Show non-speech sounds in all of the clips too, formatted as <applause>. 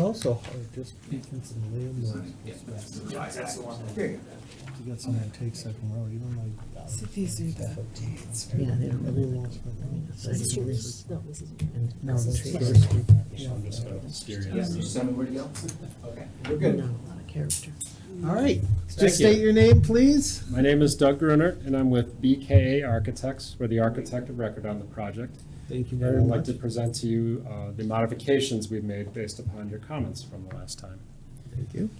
also hard just picking some landlords. That's the one. You got someone that takes second row, you don't like. So these are the updates. Yeah, they don't really Everyone wants front row. This is yours? No, this is yours. No, this is yours. Yeah. Yeah, you just tell me where to go? Okay, we're No, good. a lot of character. All right, you. just state your name, please. My name is Doug Gruner, and I'm with BKA Architects. We're the architect of record on the project. Thank you And very I'd like much. to present to you uh, the modifications we've made based upon your comments from the last time. Thank you.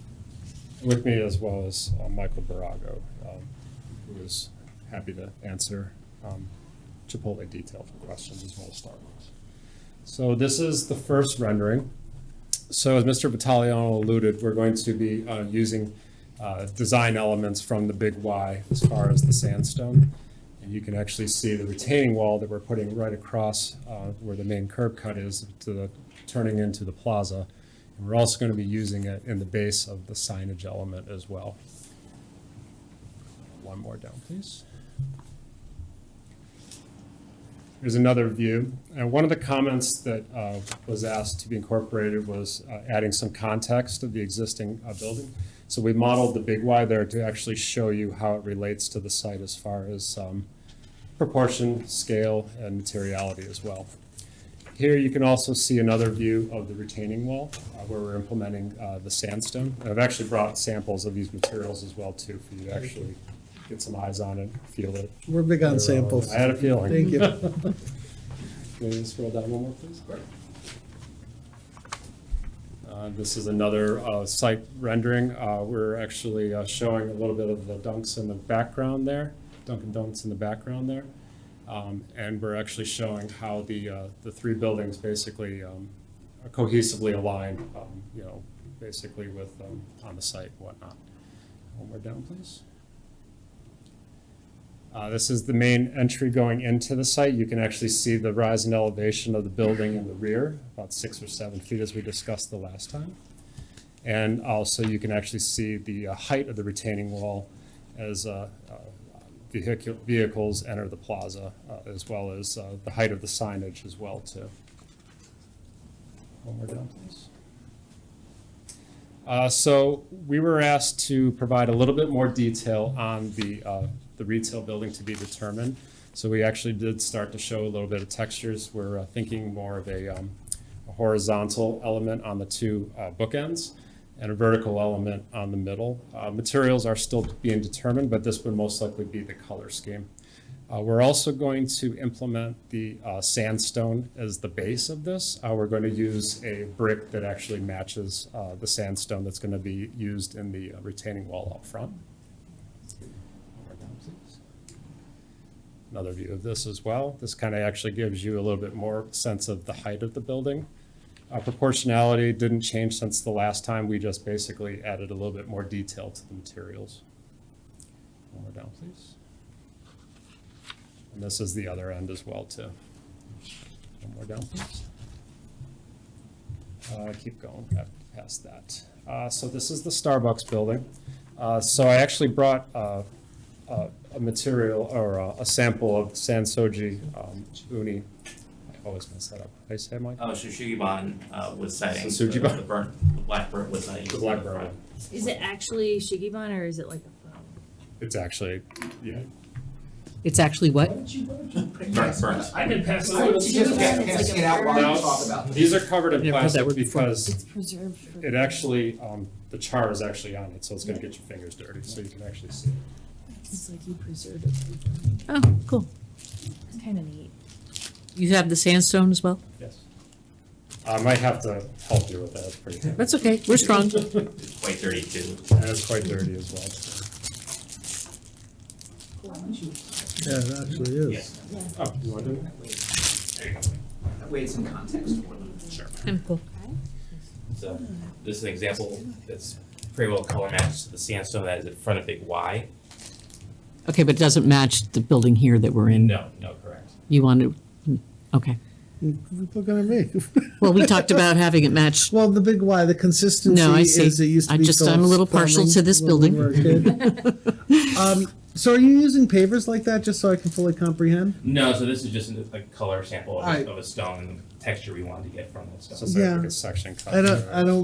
With me as well as uh, Michael Barago, um, who is happy to answer um, Chipotle detailed questions as well as Starbucks. So this is the first rendering. So as Mr. Battagliano alluded, we're going to be uh, using uh, design elements from the Big Y as far as the sandstone. And you can actually see the retaining wall that we're putting right across uh, where the main curb cut is to the, turning into the plaza. And we're also going to be using it in the base of the signage element as well. One more down, please. Here's another view. And one of the comments that uh, was asked to be incorporated was uh, adding some context of the existing uh, building. So we modeled the big Y there to actually show you how it relates to the site as far as um, proportion, scale, and materiality as well. Here you can also see another view of the retaining wall uh, where we're implementing uh, the sandstone. And I've actually brought samples of these materials as well too for you to actually get some eyes on it, feel it. We're big on samples. I had a feeling. Thank <laughs> you. Can you scroll down one more, please? Uh, This is another uh, site rendering. Uh, We're actually uh, showing a little bit of the Dunks in the background there, Dunkin' Donuts in the background there. Um, And we're actually showing how the, uh, the three buildings basically um, are cohesively aligned, um, you know, basically with, um, on the site and whatnot. One more down, please. Uh, This is the main entry going into the site. You can actually see the rise in elevation of the building in the rear, about six or seven feet as we discussed the last time. And also you can actually see the uh, height of the retaining wall as uh, uh, vehicu- vehicles enter the plaza, uh, as well as uh, the height of the signage as well too. One more down, please. Uh, So we were asked to provide a little bit more detail on the, uh, the retail building to be determined. So we actually did start to show a little bit of textures. We're uh, thinking more of a um, a horizontal element on the two uh, bookends and a vertical element on the middle. Uh, Materials are still being determined, but this would most likely be the color scheme. Uh, We're also going to implement the uh, sandstone as the base of this. Uh, We're going to use a brick that actually matches uh, the sandstone that's going to be used in the uh, retaining wall up front. Another view of this as well. This kind of actually gives you a little bit more sense of the height of the building. Uh, Proportionality didn't change since the last time. We just basically added a little bit more detail to the materials. One more down, please. And this is the other end as well, too. One more down, please. Uh, Keep going, got past that. Uh, So this is the Starbucks building. Uh, So I actually brought uh, a a material, or uh, a- a sample of Sansoji um, uni. I always mess that up. I say, Mike? Oh, Shushugiban, uh, wood siding. So the- Shugiban. The burnt, the black burnt wood siding. The black burnt wood. Is it actually Shigibon or is it like a flower? It's actually, yeah. It's actually what? Burnt, burnt. I can pass So you just can't, It's can't like see a it out while bird. you talk about it. These are covered in Never heard plastic that word before. because It's preserved for. It actually, um, the char is actually on it, so it's gonna get your fingers dirty, so you can actually see it. It's like you preserved it. Oh, cool. It's kind of neat. You have the sandstone as well? Yes. I might have to help you with that, it's pretty heavy. That's okay, we're strong. It's quite dirty too. And it's quite dirty as well. Yeah, it actually is. Oh, you want to? That way it's in context for them. Sure. Kind of cool. So this is an example that's pretty well color matched to the sandstone that is in front of Big Y. Okay, but it doesn't match the building here that we're in. No, no, correct. You want to, okay. You're Looking at me. <laughs> Well, we talked about having it match. Well, the big why, the consistency No, I see. is it used to I be just- I'm a little Phillips partial to this Plumbing when we building. were a <laughs> kid. Um, So are you using pavers like that, just so I can fully comprehend? No, so this is just a a color sample of Alright. a, of a stone and the texture we wanted to get from that stone. So it's like Yeah. a section cut. I don't, I don't